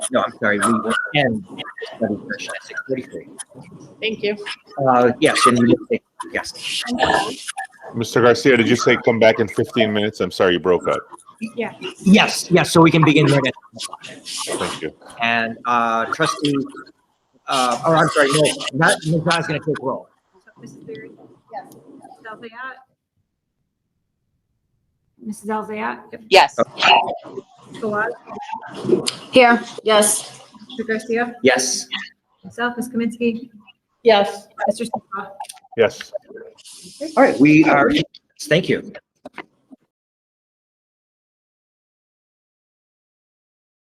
no, I'm sorry, we will end study session at six forty-three. Thank you. Uh, yes, and we, yes, Mr. Garcia, did you say come back in 15 minutes? I'm sorry, you broke up. Yeah. yes, yes, so we can begin right at- Thank you. And uh, trustee, uh, oh, I'm sorry, no, not, Ms. Zai's gonna take roll. Mrs. Berry? Yes. Mrs. Elzayat? Mrs. Elzayat? Yes. Fawad? Here, yes. Mr. Garcia? Yes, Myself, Ms. Kaminsky? Yes. Mr. Seesaw? Yes. all right, we are, thank you.